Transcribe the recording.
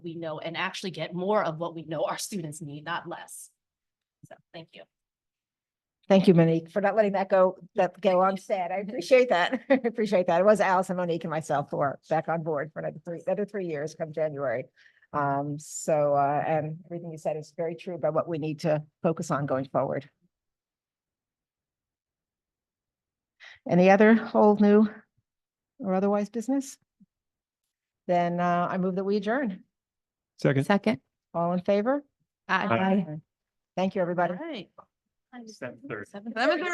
we know and actually get more of what we know our students need, not less. So, thank you. Thank you, Monique, for not letting that go, that go unsaid. I appreciate that. I appreciate that. It was Allison, Monique and myself who are back on board for another three, another three years come January. Um, so, uh, and everything you said is very true about what we need to focus on going forward. Any other whole new or otherwise business? Then, uh, I move that we adjourn. Second. Second. All in favor? Aye. Thank you, everybody. right. Seven thirty. Seven Seven thirty.